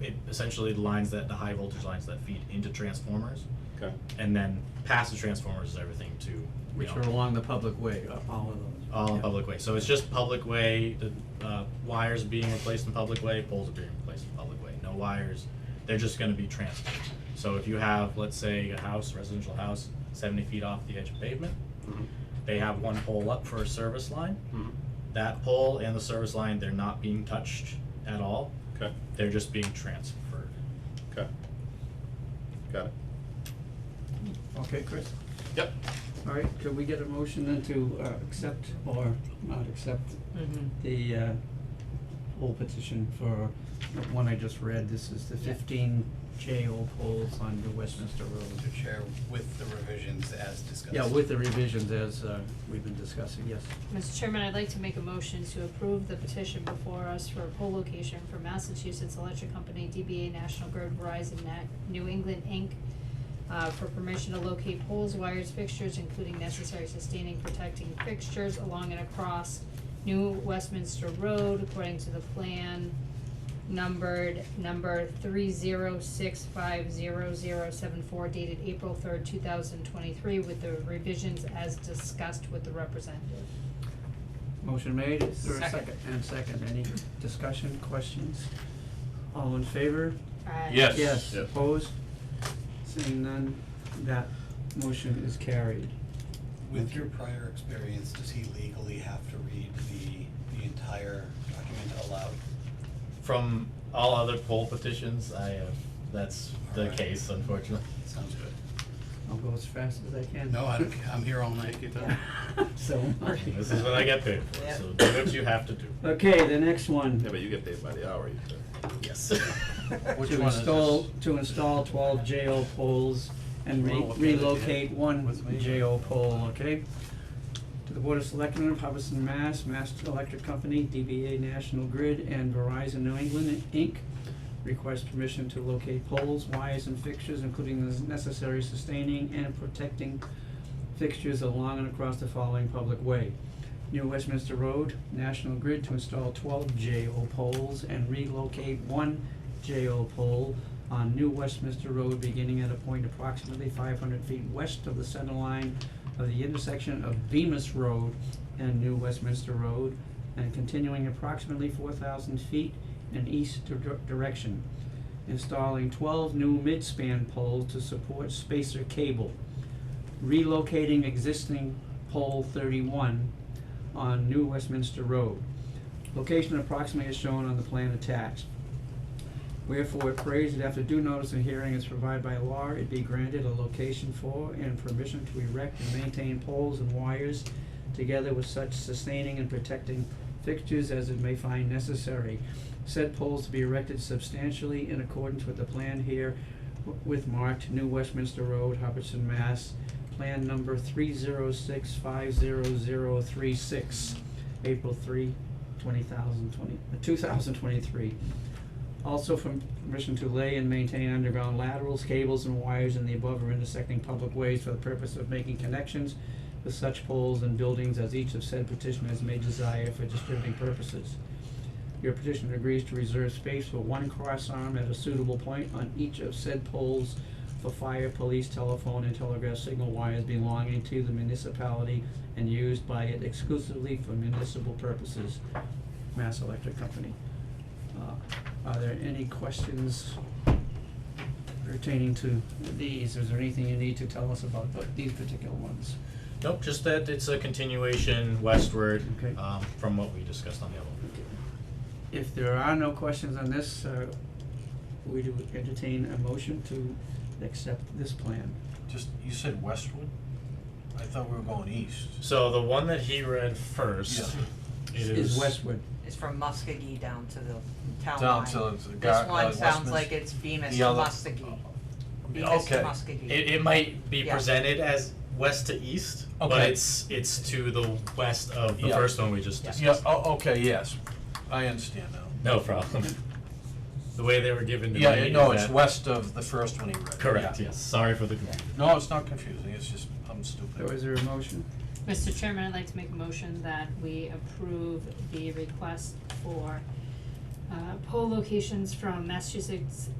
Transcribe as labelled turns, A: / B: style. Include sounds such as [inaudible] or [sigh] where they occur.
A: it essentially the lines that, the high voltage lines that feed into transformers,
B: Okay.
A: and then past the transformers is everything to, you
C: which
A: know,
C: are along the public way, uh, all of those.
A: all in
C: Yeah.
A: public way. So it's just public way, the uh, wires being replaced in public way, poles are being replaced in public way. No wires, they're just gonna be transferred. So if you have, let's say, a house, residential house, seventy feet off the edge of pavement,
B: Mhm.
A: they have one pole up for a service line.
B: Mhm.
A: That pole and the service line, they're not being touched at all,
B: Okay,
A: they're just being transferred.
B: okay. Got it.
C: Okay, Chris,
B: Yep.
C: all right, could we get a motion then to, uh, accept or not accept the, uh, whole petition for the one I just read, this is the fifteen J O poles on New Westminster Road.
D: Mr. Chair, with the revisions as discussed.
C: Yeah, with the revisions as, uh, we've been discussing, yes.
E: Mr. Chairman, I'd like to make a motion to approve the petition before us for a pole location for Massachusetts Electric Company, DBA National Grid Verizon Net, New England Inc., uh, for permission to locate poles, wires, fixtures, including necessary sustaining protecting fixtures along and across New Westminster Road according to the plan numbered number three zero six five zero zero seven four dated April third, two thousand twenty-three with the revisions as discussed with the representative.
C: Motion made, is there a
D: Second.
C: second? And second, any discussion, questions? All in favor?
E: Aye.
B: Yes.
C: Yes,
B: Yes.
C: opposed? Seeing none, that motion is carried.
D: With your prior experience, does he legally have to read the, the entire document aloud?
A: From all other poll petitions, I, uh, that's the
D: Alright.
A: case
F: [laughs]
A: unfortunately.
D: Sounds good.
C: I'll go as fast as I can.
D: No, I don't, ca- I'm here all night.
C: So. am I.
A: This is what I get paid for, so do what you have to do.
C: Okay, the next
B: Yeah,
C: one,
B: but you get paid by the hour, you said.
F: [laughs]
A: Yes.
D: Which
C: to
D: one is
C: install,
D: this?
C: to install twelve JO poles and re-
D: Well, okay, yeah.
C: relocate one
D: With me.
C: JO pole, okay? To the Board of Selectmen of Hubbardston, Mass, Mass Electric Company, DBA National Grid, and Verizon New England Inc. Request permission to locate poles, wires, and fixtures, including the necessary sustaining and protecting fixtures along and across the following public way. New Westminster Road, National Grid to install twelve JO poles and relocate one JO pole on New Westminster Road beginning at a point approximately five hundred feet west of the center line of the intersection of Bemis Road and New Westminster Road and continuing approximately four thousand feet in east dir- direction. Installing twelve new midspan poles to support spacer cable relocating existing pole thirty-one on New Westminster Road. Location approximately is shown on the plan attached. Wherefore, it prays that after due notice and hearing is provided by law, it be granted a location for and permission to erect and maintain poles and wires together with such sustaining and protecting fixtures as it may find necessary. Said poles to be erected substantially in accordance with the plan here w- with marked New Westminster Road, Hubbardston, Mass. Plan number three zero six five zero zero three six, April three, twenty thousand twenty, uh, two thousand twenty-three. Also from permission to lay and maintain underground laterals, cables, and wires in the above or intersecting public ways for the purpose of making connections with such poles and buildings as each of said petitioners may desire for distributing purposes. Your petitioner agrees to reserve space for one cross arm at a suitable point on each of said poles for fire, police, telephone, and telegraph signal wires belonging to the municipality and used by it exclusively for municipal purposes. Mass Electric Company. Uh, Are there any questions pertaining to these? Is there anything you need to tell us about the- these particular ones?
A: [laughs] Nope, just that it's a continuation westward,
C: Okay.
A: um, from what we discussed on the other one.
C: If there are no questions on this, uh, we do entertain a motion to accept this plan.
F: Just, you said Westwood? I thought we were going east.
A: So the one that he read first, it
C: Is
A: is,
C: Westwood,
G: It's from Muskogee down to the town line.
F: Down to the gar- uh,
G: This one sounds
F: Westminster.
G: like it's Bemis
F: The
G: to
F: other- uh,
G: Muskogee. Bemis to
F: Okay,
G: Muskogee.
A: it, it might be
G: Yeah.
A: presented as west to east, but
F: Okay.
A: it's, it's to the west of the
F: Yeah.
A: first one we just
G: Yeah.
A: discussed.
F: yeah, oh, okay, yes, I understand now.
A: No problem. [laughs] The way they were given to me
F: Yeah,
A: is
F: no, it's
A: that-
F: west of the first one he read.
A: Correct,
F: yeah.
A: yes, sorry for the confusion.
F: No, it's not confusing, it's just, I'm
C: so
F: stupid.
C: is there a motion?
E: Mr. Chairman, I'd like to make a motion that we approve the request for uh, pole locations from Massachusetts